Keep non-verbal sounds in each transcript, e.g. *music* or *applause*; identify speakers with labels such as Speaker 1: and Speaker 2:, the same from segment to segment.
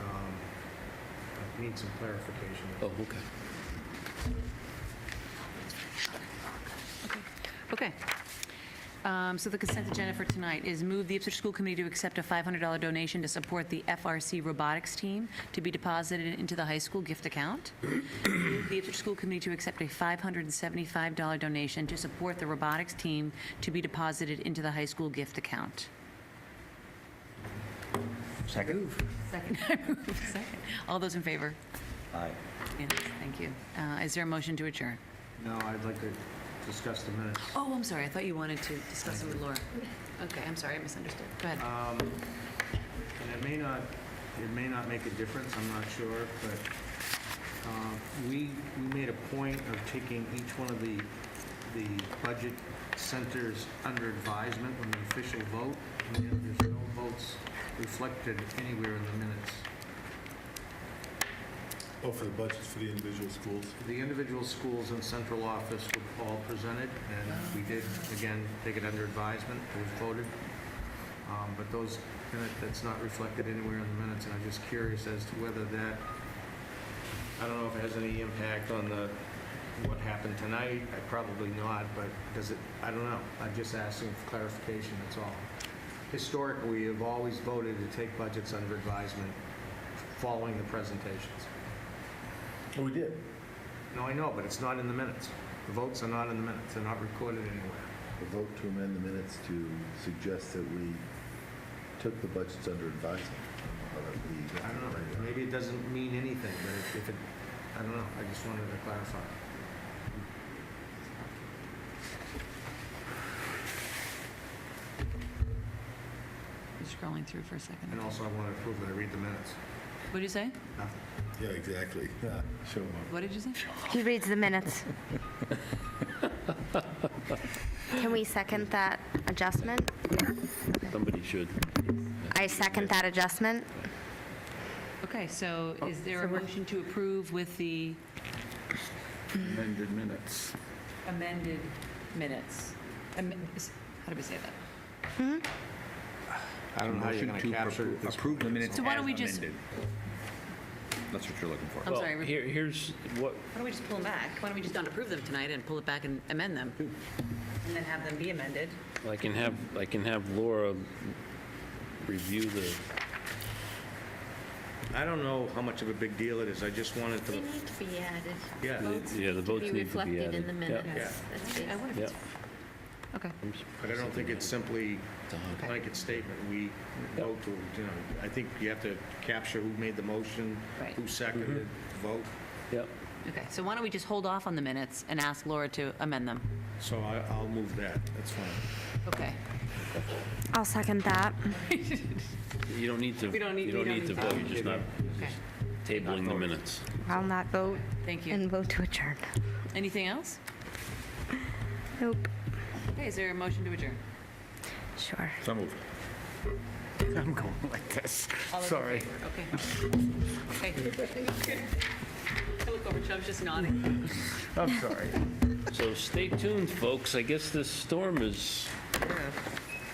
Speaker 1: Um, need some clarification.
Speaker 2: Oh, okay.
Speaker 3: Okay. Um, So the consent agenda for tonight is move the Ipswich School Committee to accept a $500 donation to support the FRC robotics team to be deposited into the high school gift account. Move the Ipswich School Committee to accept a $575 donation to support the robotics team to be deposited into the high school gift account.
Speaker 4: Second?
Speaker 3: Second. *laughs* Second. All those in favor?
Speaker 4: Aye.
Speaker 3: Yes, thank you. Uh, Is there a motion to adjourn?
Speaker 1: No, I'd like to discuss the minutes.
Speaker 3: Oh, I'm sorry, I thought you wanted to discuss it with Laura. Okay, I'm sorry, I misunderstood. Go ahead.
Speaker 1: Um, And it may not, it may not make a difference, I'm not sure, but uh, we, we made a point of taking each one of the, the budget centers under advisement when the official vote, and then there's no votes reflected anywhere in the minutes.
Speaker 5: Oh, for the budgets for the individual schools?
Speaker 1: The individual schools and central office were all presented, and we did, again, take it under advisement, it was voted. Um, But those, minute- that's not reflected anywhere in the minutes, and I'm just curious as to whether that, I don't know if it has any impact on the, what happened tonight, I probably not, but does it, I don't know. I'm just asking for clarification, that's all. Historically, we have always voted to take budgets under advisement following the presentations.
Speaker 5: Oh, we did.
Speaker 1: No, I know, but it's not in the minutes. The votes are not in the minutes, they're not recorded anywhere.
Speaker 6: A vote to amend the minutes to suggest that we took the budgets under advisement. or that we-
Speaker 1: I don't know, maybe it doesn't mean anything, but if- if it, I don't know, I just wanted to clarify.
Speaker 3: Scrolling through for a second.
Speaker 1: And also, I want to prove that I read the minutes.
Speaker 3: What did you say?
Speaker 1: Nothing.
Speaker 5: Yeah, exactly. Yeah, Show 'em up.
Speaker 3: What did you say?
Speaker 7: He reads the minutes. Can we second that adjustment?
Speaker 2: Somebody should.
Speaker 7: I second that adjustment.
Speaker 3: Okay, Oh, so is there a motion to approve with the
Speaker 4: Amended minutes.
Speaker 3: amended minutes? Am- is- How did we say that?
Speaker 1: I don't know how you're
Speaker 4: Motion
Speaker 1: going to
Speaker 4: to
Speaker 1: capture
Speaker 4: appro-
Speaker 1: this.
Speaker 4: Approve the minutes
Speaker 3: So why
Speaker 4: as
Speaker 3: don't we just-
Speaker 4: amended. That's what you're looking for.
Speaker 3: I'm sorry.
Speaker 2: Well,
Speaker 3: we-
Speaker 2: here, here's what,
Speaker 3: Why don't we just pull them back? Why don't we just not approve them tonight and pull it back and amend them? And then have them be amended?
Speaker 2: I can have, I can have Laura review the,
Speaker 1: I don't know how much of a big deal it is, I just wanted
Speaker 8: They
Speaker 1: to,
Speaker 8: need to be added.
Speaker 1: Yeah.
Speaker 2: yeah, the votes need to be added.
Speaker 8: reflected in the
Speaker 2: Yeah,
Speaker 8: minutes. That's it.
Speaker 2: Yeah,
Speaker 3: Okay.
Speaker 1: but I don't think it's simply
Speaker 3: Okay.
Speaker 1: blanket statement. We vote to, you know, I think you have to capture who made the motion,
Speaker 3: Right.
Speaker 1: who seconded, it, vote.
Speaker 2: yeah.
Speaker 3: Okay, so why don't we just hold off on the minutes and ask Laura to amend them?
Speaker 1: So I- I'll move that, that's fine.
Speaker 3: Okay.
Speaker 7: I'll second that.
Speaker 2: You don't need to,
Speaker 3: We don't need-
Speaker 2: you don't
Speaker 3: we
Speaker 2: need
Speaker 3: don't
Speaker 2: to
Speaker 3: need to
Speaker 2: vote, you're just not
Speaker 3: Okay,
Speaker 2: tabling the minutes.
Speaker 7: I'll not vote
Speaker 3: thank you.
Speaker 7: and vote to adjourn.
Speaker 3: Anything else?
Speaker 7: Nope,
Speaker 3: Okay, is there a motion to adjourn?
Speaker 7: sure.
Speaker 5: So moved.
Speaker 4: I'm going like this.
Speaker 3: All those in
Speaker 4: Sorry.
Speaker 3: favor? Okay. *laughs* Okay. I look over, Chubb's just nodding.
Speaker 4: I'm sorry.
Speaker 2: So stay tuned, folks, I guess this storm is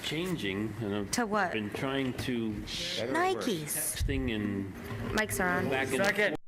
Speaker 2: changing, and I've
Speaker 7: To what?
Speaker 2: Been trying to
Speaker 7: Nikes.
Speaker 2: texting and
Speaker 7: Mics are on.
Speaker 2: back and forth.